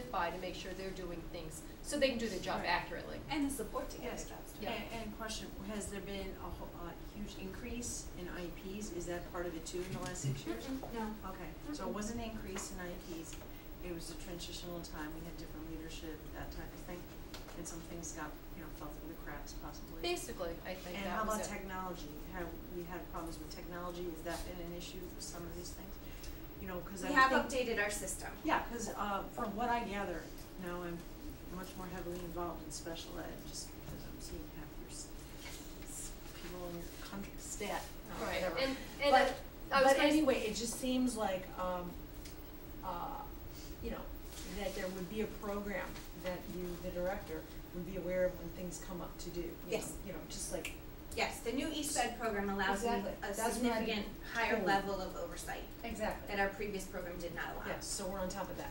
verify to make sure they're doing things, so they can do their job Right. accurately. And the support to get Yes. the jobs done. Yeah. And, and question, has there been a whole, a huge increase in IEPs? Is that part of it too in the last six years? No, Mm-hmm. Okay, so it wasn't an increase in IEPs, it was a transitional time, we had different leadership, that type of thing, and some things got, you know, fell through the cracks possibly. Basically, I think And how that was about it. technology? Have we had problems with technology? Has that been an issue with some of these things? You know, cause I we would have think- updated our system. Yeah, cause uh from what I gather, now I'm much more heavily involved in special ed, just because I'm seeing half your s- s- people in your country, stat, or Right, whatever. and, and I- I was But, but gonna s- anyway, it just seems like, um, uh, you know, that there would be a program that you, the director, would be aware of when things come up to do, you know, Yes. you know, just like, Yes, the new East Side program allows me Exactly. a That's what I'm significant higher told. level of oversight exactly, that our previous program did not allow. yes, so we're on top of that.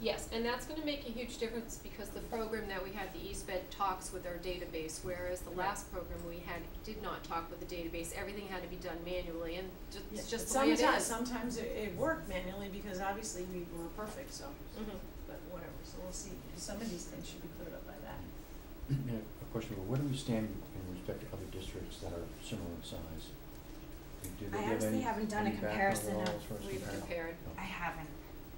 Yes, and that's gonna make a huge difference because the program that we had, the East Bed talks with our database, whereas the last program we had did not talk with the database. Everything had to be done manually and ju- Yeah, it's but just the way it is. Sometimes, sometimes it, it worked manually because obviously we were perfect, so, Mhm. but whatever, so we'll see, some of these things should be cleared up by that. Yeah, a question, but where do we stand in respect to other districts that are similar in size? Do they I give honestly any- haven't done a any background comparison at all of- as Oh, far as We've comparing? compared. No. I haven't.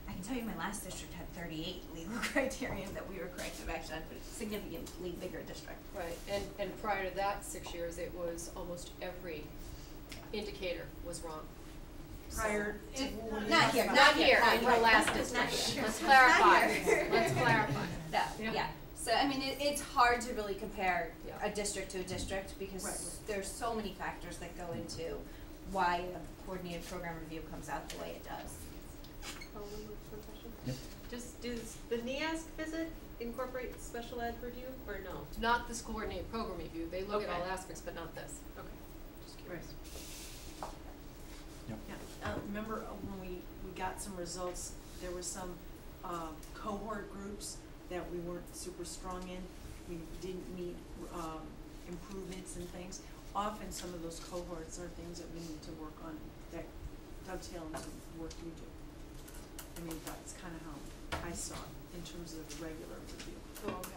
I can tell you my last district had thirty-eight legal criteria that we were corrective action on, but it's a significantly bigger district. Right, and, and prior to that, six years, it was almost every indicator was wrong. Prior to. It- when we not talked here, about- Not here, here, not in right, the last not district. here. Let's Not clarify, here. let's clarify. Mm-hmm. No, Yeah. yeah. So I mean, it, it's hard to really compare Yeah. a district to a district because Right. there's so many factors that go into why a coordinated program review comes out the way it does. Yep. Just, does the NEASC visit incorporate special ed review or no? Not this coordinated program review, they look at all Okay. aspects, but not this. Okay, just curious. Yep. Yeah, uh, remember uh, when we, we got some results, there were some, uh, cohort groups that we weren't super strong in. We didn't meet, um, improvements and things. Often some of those cohorts are things that we need to work on that dovetail into work we do. I mean, that's kinda how I saw it in terms of regular review. Oh, okay.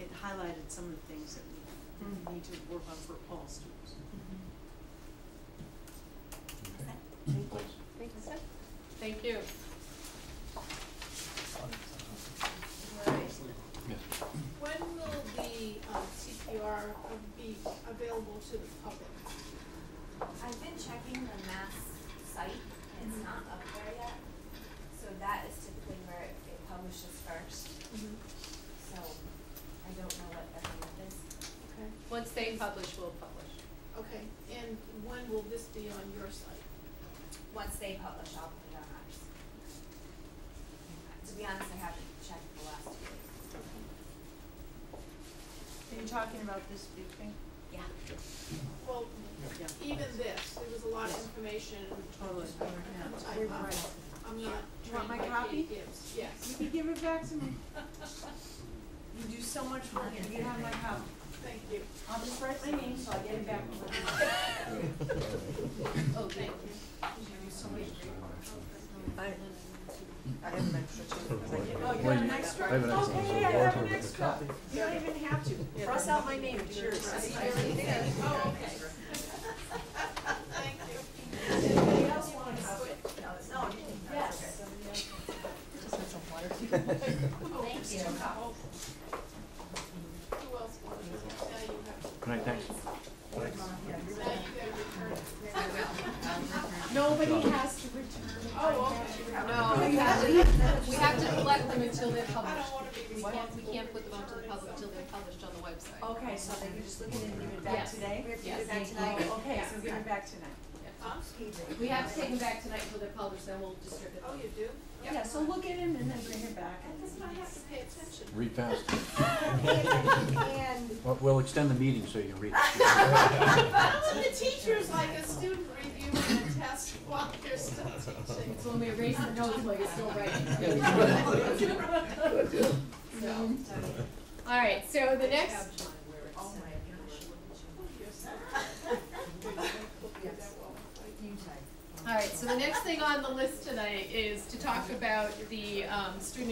It highlighted some of the things that we need to work on for all students. Okay. Thanks. Thank you. Yes. When will the um, CPR be available to the public? I've been checking the mass site, it's not up there yet, so that is typically where it it publishes first, Mm-hmm. so I don't know what their limit is. Okay, Once they publish, we'll publish. okay, and when will this be on your site? Once they publish, I'll put it on ours. To be honest, I haven't checked the last two weeks. Are you talking about this big thing? Yeah. Well, Yeah. even this, there was a lot of information. Totally. just over time. We're right. I'm Do not you want trained my by copy? Mm-hmm. Katie Gibbs, You yes, can give it back to me. You do so much work, you have my help. thank you. I'll just write my name so I get it back. when I- Oh, thank you. I, I have an extra too, 'cause I give it- Oh, you Well, have an you- extra? I have an Okay, extra, so I Walter have an with a extra. copy. You don't even have to, Yeah. cross out my name, it's yours. Oh, okay. Thank you. Anybody else want a copy? No, you didn't. Yes. Thank you. Who else wanted it? Now you have, Good night, thanks. now you gotta return it. Nobody has to return. Oh, okay. No, we have to, we have to collect them until they're I don't published. wanna be We can't, we responsible can't for put them out to the returning public until something. they're published on the website. Okay, so then you just look at it and give it back Yes. today? We have to Yes. do that tonight. Oh, okay, so give it back tonight. Huh? We have to take them back tonight until they're published, then we'll distribute Oh, them. you do? Yeah, so look at him and then bring it back. I guess I have to pay attention. Read fast. And Well, We'll extend the meeting so you can read. Well, the teacher's like a student reviewing a test while they're still teaching. It's when we erase the notes while you're still writing. So, all right, so the next, Oh my gosh. all right, so the next thing on the list tonight is to talk about the, um, student